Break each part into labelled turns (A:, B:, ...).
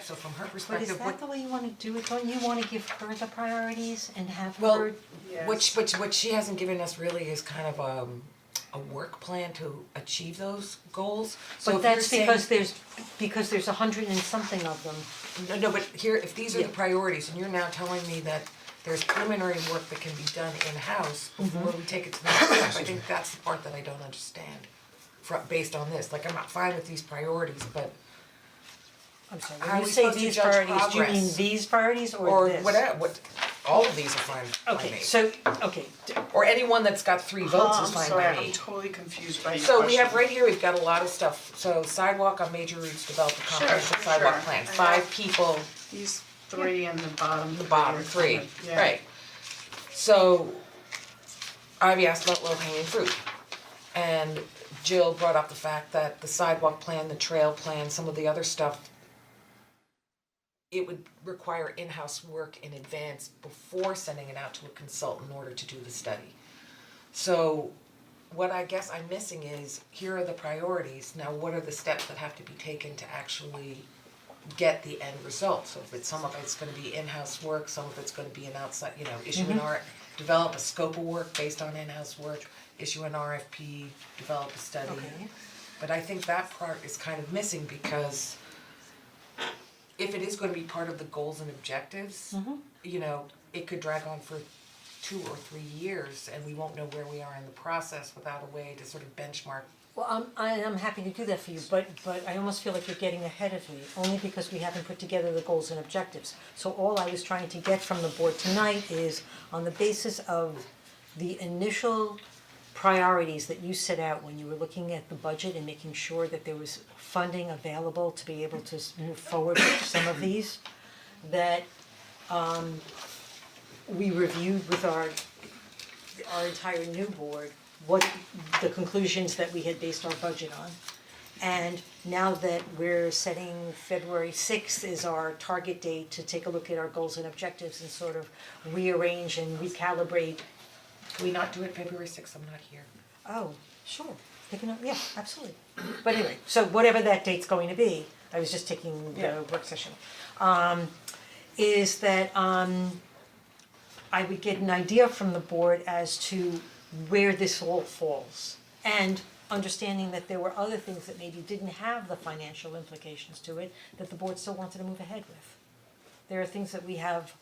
A: so from her
B: But is
A: perspective, what
B: that the way you wanna do it, don't you wanna give her the priorities and have
A: Well,
B: her,
A: Which, which, what she hasn't given us really is kind of um, a work plan to achieve those goals, so
B: but
A: if you're
B: that's
A: saying.
B: because there's, because there's a hundred and something of them.
A: No, no, but here, if these are the
B: Yeah.
A: priorities, and you're now telling me that there's preliminary work that can be done in-house
B: Mm-hmm.
A: before we take it to the next step, I think that's the part that I don't understand. Fro- based on this, like, I'm not fine with these priorities, but,
B: I'm sorry,
A: How are
B: when you
A: we
B: say
A: supposed to
B: these
A: judge
B: priorities, do you mean
A: progress?
B: these priorities or
A: or
B: this?
A: whatever, what, all of these are fine by me.
B: Okay, so, Oh, okay, d-
A: Or anyone that's got three votes is
C: I'm
A: fine by me.
C: sorry, I'm totally confused by your question.
A: Oh, So we have right here, we've got a lot of stuff, so sidewalk on major routes, develop a comprehensive
C: sure,
A: sidewalk
C: sure.
A: plan, five people,
C: These three in the bottom.
A: the bottom three,
C: Yeah.
A: right? So Ivy asked about low hanging fruit. And Jill brought up the fact that the sidewalk plan, the trail plan, some of the other stuff. It would require in-house work in advance before sending it out to a consultant in order to do the study. So what I guess I'm missing is, here are the priorities, now what are the steps that have to be taken to actually get the end result? So if it's, some of it's gonna be in-house work, some of it's gonna be an outside, you know, issue an R, develop a scope of work based on in-house work, issue an RFP, develop a study.
B: Okay.
A: But I think that part is kind of missing because if it is gonna be part of the goals and objectives, you know, it could drag on for two or three years and we won't know where we are in the process without a way to sort of benchmark.
B: well, I'm, I am happy to do that for you, but, but I almost feel like you're getting ahead of me, only because we haven't put together the goals and objectives. So all I was trying to get from the board tonight is, on the basis of the initial priorities that you set out when you were looking at the budget and making sure that there was funding available to be able to s- move forward with some of these, that um we reviewed with our our entire new board what the conclusions that we had based our budget on. And now that we're setting February sixth is our target date to take a look at our goals and objectives and sort of rearrange and recalibrate
A: Can we not do it February sixth? I'm not here.
B: Oh, sure, picking up, yeah, absolutely. But anyway, so whatever that date's going to be, I was just taking
A: Yeah.
B: the work session. Um, is that um, I would get an idea from the board as to where this all falls. And understanding that there were other things that maybe didn't have the financial implications to it, that the board still wanted to move ahead with. There are things that we have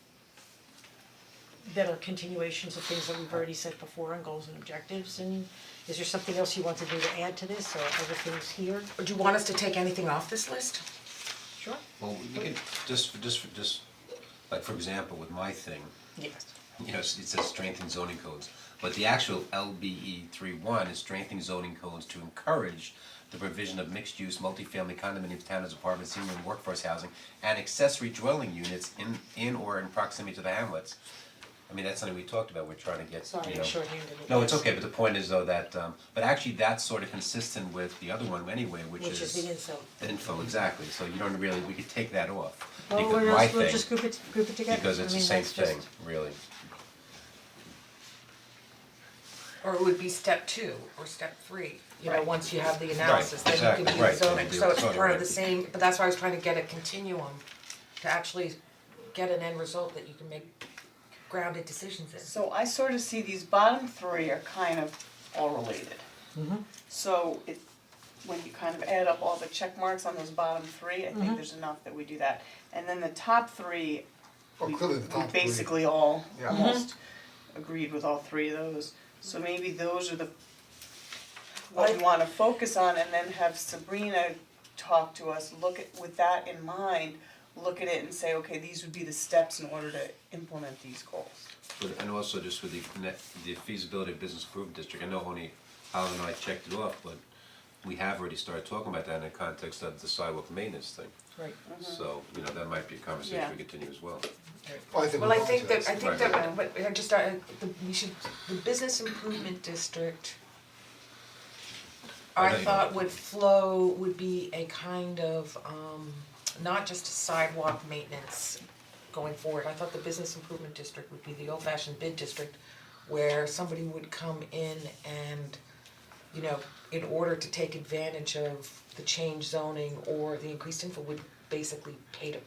B: that are continuations of things that we've already said before on goals and objectives, and is there something else you want to do to add to this, or other things here?
A: Or do you want us to take anything off this list?
B: Sure.
D: Well, you can, just, for- just, for- just, like, for example, with my thing,
B: Yes.
D: you know, it says strengthen zoning codes. But the actual LBE three one is strengthening zoning codes to encourage the provision of mixed-use, multifamily condominiums, townhomes, apartments, senior and workforce housing, and accessory dwelling units in, in or in proximity to the hamlets. I mean, that's something we talked about, we're trying to get,
B: Sorry,
D: you
B: I
D: know.
B: shorthanded it.
D: No, it's
B: Yes.
D: okay, but the point is though that, um, but actually that's sort of consistent with the other one anyway,
B: Which is the info.
D: the info, exactly, so you don't really, we could take that off,
B: Well,
D: because
B: we're
D: my
B: just, Oh, we'll
D: thing,
B: just group it, group it together,
D: because
B: I
D: it's the
B: mean,
D: same
B: that's just-
D: thing, really.
A: Or it would be step two or step three, you know,
D: Right.
A: once you have the analysis, then you
D: exactly,
A: can do the
D: right, then
A: zoning,
D: you do
A: so
D: the
A: it's
D: zoning,
A: part of
D: right.
A: the same, but that's why I was trying to get a continuum to actually get an end result that you can make grounded decisions in.
C: So I sort of see these bottom three are kind of all related.
A: Mm-hmm.
C: So it, when you kind of add up all the check marks on those bottom three, I
A: Mm-hmm.
C: think there's enough that we do that. And then the top three,
E: Well,
C: we
E: Oh, clearly
C: we
E: the top three.
C: basically all,
E: Yeah. Mhm.
C: almost agreed with all three of those. So maybe those are the,
A: I-
C: what we wanna focus on and then have Sabrina talk to us, look at, with that in mind, look at it and say, okay, these would be the steps in order to implement these goals.
D: But and also just with the net, the feasibility of business improvement district, I know only Alan and I checked it off, but we have already started talking about that in the context of the sidewalk maintenance thing,
B: Right.
D: so, you know, that might be a conversation we
C: Yeah.
D: continue as well.
E: Well, I
A: Mm-hmm.
E: think
A: Well,
E: we're
A: I
E: all
A: think
E: to
A: that, I
E: that.
A: think
D: Right.
A: that, uh, what, I just, uh, the, we should, the business improvement district,
D: I
A: I
D: know you
A: thought
D: don't.
A: would flow, would be a kind of, um, not just sidewalk maintenance going forward, I thought the business improvement district would be the old fashioned bid district where somebody would come in and, you know, in order to take advantage of the change zoning or the increased info would basically pay to